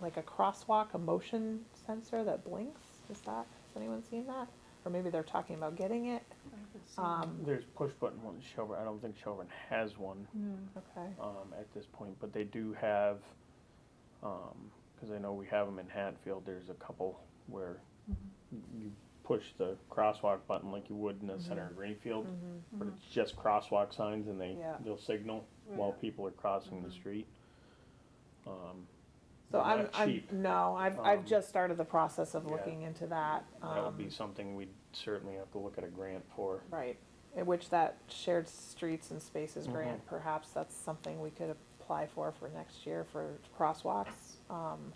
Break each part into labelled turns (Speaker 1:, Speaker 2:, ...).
Speaker 1: like a crosswalk, a motion sensor that blinks? Is that, has anyone seen that? Or maybe they're talking about getting it? Um,
Speaker 2: There's push button ones, Shelburne, I don't think Shelburne has one,
Speaker 1: hmm, okay,
Speaker 2: um, at this point, but they do have, um, cause I know we have them in Hatfield, there's a couple where
Speaker 1: Mm-hmm.
Speaker 2: you push the crosswalk button like you would in the center of Greenfield,
Speaker 1: Mm-hmm.
Speaker 3: Mm-hmm.
Speaker 2: but it's just crosswalk signs and they,
Speaker 1: Yeah. Mm-hmm.
Speaker 2: they'll signal while people are crossing the street. Um,
Speaker 1: so
Speaker 2: They're
Speaker 1: I'm,
Speaker 2: not
Speaker 1: I'm,
Speaker 2: cheap.
Speaker 1: no, I've, I've
Speaker 2: Um,
Speaker 1: just started the process of
Speaker 2: yeah.
Speaker 1: looking into that.
Speaker 2: that would be
Speaker 1: um,
Speaker 2: something we'd certainly have to look at a grant for.
Speaker 1: Right, in which that shared streets and spaces
Speaker 2: Mhm.
Speaker 1: grant, perhaps that's something we could apply for for next year for crosswalks. Um,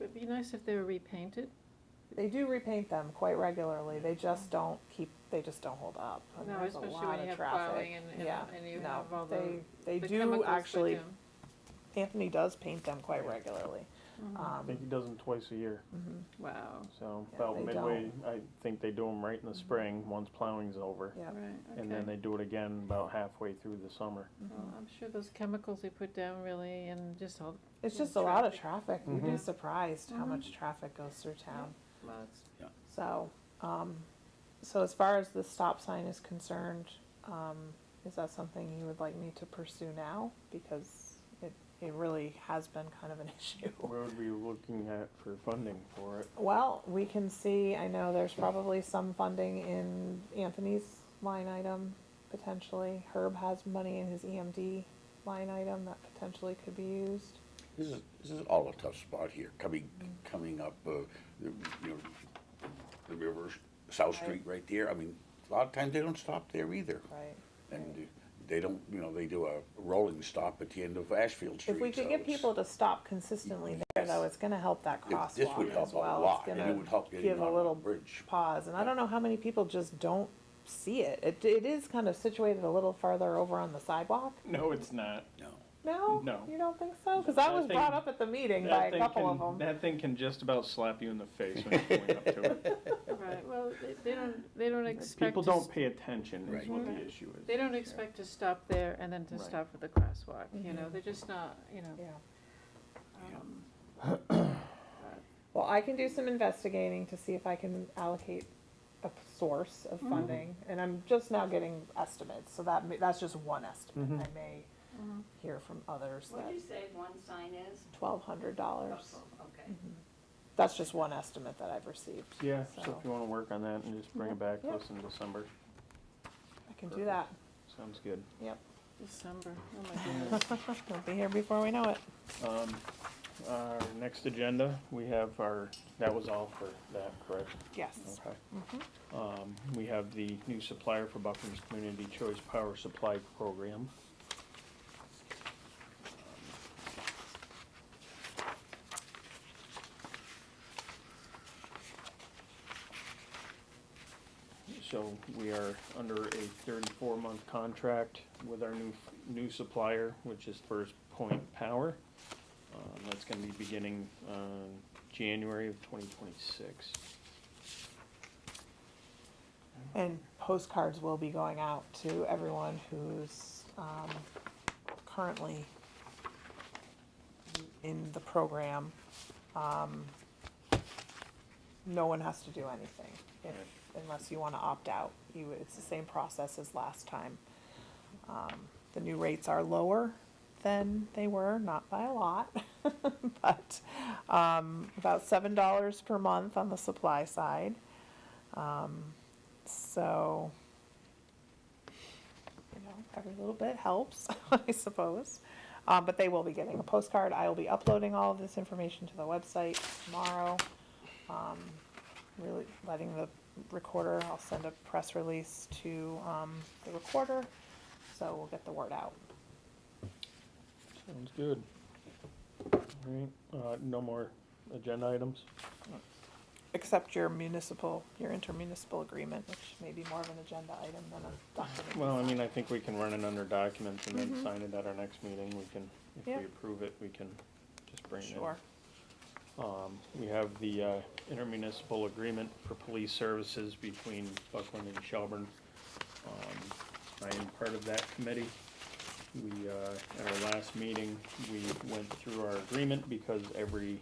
Speaker 3: It'd be nice if they were repainted.
Speaker 1: They do repaint them quite regularly, they just don't keep, they just don't hold up. and
Speaker 3: No,
Speaker 1: Oh, there's a
Speaker 3: especially
Speaker 1: lot
Speaker 3: when
Speaker 1: of
Speaker 3: you have
Speaker 1: traffic.
Speaker 3: plowing and- and-
Speaker 1: Yeah,
Speaker 3: and you
Speaker 1: no,
Speaker 3: have all the-
Speaker 1: they- They
Speaker 3: The
Speaker 1: do
Speaker 3: chemicals that
Speaker 1: actually, uh,
Speaker 3: do.
Speaker 1: Anthony does paint them quite regularly. Um, mm-hmm.
Speaker 3: Mhm.
Speaker 2: I think he does them twice a year.
Speaker 3: Wow,
Speaker 2: So
Speaker 1: Yeah,
Speaker 2: about
Speaker 1: they Mm-hmm.
Speaker 2: midway, I think they do them right in the spring, once plowing's over.
Speaker 1: Yeah,
Speaker 3: right,
Speaker 2: And then
Speaker 3: okay.
Speaker 2: they do it again about halfway through the summer.
Speaker 3: Well, I'm sure those chemicals they put down really, and just all,
Speaker 1: it's
Speaker 3: Yeah,
Speaker 1: just a lot of traffic, you'd be
Speaker 2: Mhm.
Speaker 1: surprised how
Speaker 3: Mhm.
Speaker 1: much traffic goes through town.
Speaker 3: well, it's-
Speaker 1: So, um, so as far as the stop sign is concerned, um, is that something you would like me to pursue now? Because it, it really has been kind of an issue.
Speaker 2: Where would we be looking at for funding for it?
Speaker 1: Well, we can see, I know there's probably some funding in Anthony's line item, potentially. Herb has money in his EMD line item that potentially could be used.
Speaker 4: This is, this is all a tough spot here, coming, coming up, uh, the, you know, the river, South
Speaker 1: Right.
Speaker 4: Street right there. I mean, a lot of times they don't stop there either.
Speaker 1: Right.
Speaker 4: And they don't, you know, they do a rolling stop at the end of Ashfield Street.
Speaker 1: If we
Speaker 4: so
Speaker 1: could get
Speaker 4: it's-
Speaker 1: people to stop consistently there,
Speaker 4: Yes.
Speaker 1: though, it's gonna help that
Speaker 4: it-
Speaker 1: crosswalk
Speaker 4: This would
Speaker 1: as
Speaker 4: help a
Speaker 1: well.
Speaker 4: lot,
Speaker 1: It's
Speaker 4: and it
Speaker 1: gonna
Speaker 4: would help getting
Speaker 1: give a
Speaker 4: on the
Speaker 1: little
Speaker 4: bridge.
Speaker 1: pause, and I don't know how many people just don't see it. It, it is kind of situated a little farther over on the sidewalk.
Speaker 2: No, it's not.
Speaker 4: No,
Speaker 1: No,
Speaker 2: No.
Speaker 1: you don't think so? Because
Speaker 2: That
Speaker 1: that was
Speaker 2: thing-
Speaker 1: brought up at the meeting by a couple of them.
Speaker 2: That thing can just about slap you in the face when you're going up to it.
Speaker 3: right, well, they, they don't, they don't expect
Speaker 2: People
Speaker 3: to,
Speaker 2: don't
Speaker 3: s-
Speaker 2: pay attention is
Speaker 4: Right.
Speaker 2: what the issue is.
Speaker 3: they don't expect to stop there and then to
Speaker 2: Right.
Speaker 3: stop at the crosswalk, you know,
Speaker 1: Mhm.
Speaker 3: they're just not, you know.
Speaker 1: Yeah.
Speaker 4: Yeah.
Speaker 3: um,
Speaker 1: Well, I can do some investigating to see if I can allocate a p- source
Speaker 2: Mm-hmm.
Speaker 1: of funding, and I'm just now getting estimates, so that, may- that's just one estimate.
Speaker 2: Mhm.
Speaker 1: I may hear from others
Speaker 5: What
Speaker 1: that
Speaker 5: do you say one sign is? Oh,
Speaker 1: twelve hundred dollars,
Speaker 5: Okay.
Speaker 1: that's just one estimate that I've received.
Speaker 2: Yeah, so
Speaker 1: So
Speaker 2: if you wanna work on that and just bring it back to us in December,
Speaker 1: I can do that,
Speaker 2: sounds good.
Speaker 1: yep.
Speaker 3: December, oh my goodness.
Speaker 1: We'll be here before we know it.
Speaker 2: Um, our next agenda, we have our, that was all for that, correct?
Speaker 1: Yes.
Speaker 2: Okay. Um, we have the new supplier for Buckland's Community Choice Power Supply Program. So we are under a thirty-four month contract with our new, new supplier, which is First Point Power. Um, that's gonna be beginning, uh, January of twenty twenty-six.
Speaker 1: And postcards will be going out to everyone who's um, currently in the program. Um, No one has to do anything if- unless you want to opt out. You, it's the same process as last time. Um, The new rates are lower than they were, not by a lot, but um, about seven dollars per month on the supply side. So, you know, every little bit helps, I suppose. Um, but they will be getting a postcard. I will be uploading all of this information to the website tomorrow. Um, really letting the recorder, I'll send a press release to um, the recorder. So we'll get the word out.
Speaker 2: Sounds good. Alright, uh, no more agenda items?
Speaker 1: Except your municipal, your intermunicipal agreement, which may be more of an agenda item than a document.
Speaker 2: Well, I mean, I think we can run it under documents and then sign it at our next meeting, we can, if
Speaker 1: Mm-hmm. Yeah.
Speaker 2: we approve it, we can just bring it in.
Speaker 1: Sure.
Speaker 2: Um, we have the, uh, intermunicipal agreement for police services between Buckland and Shelburne. Um, I am part of that committee. We, uh, at our last meeting, we went through our agreement because every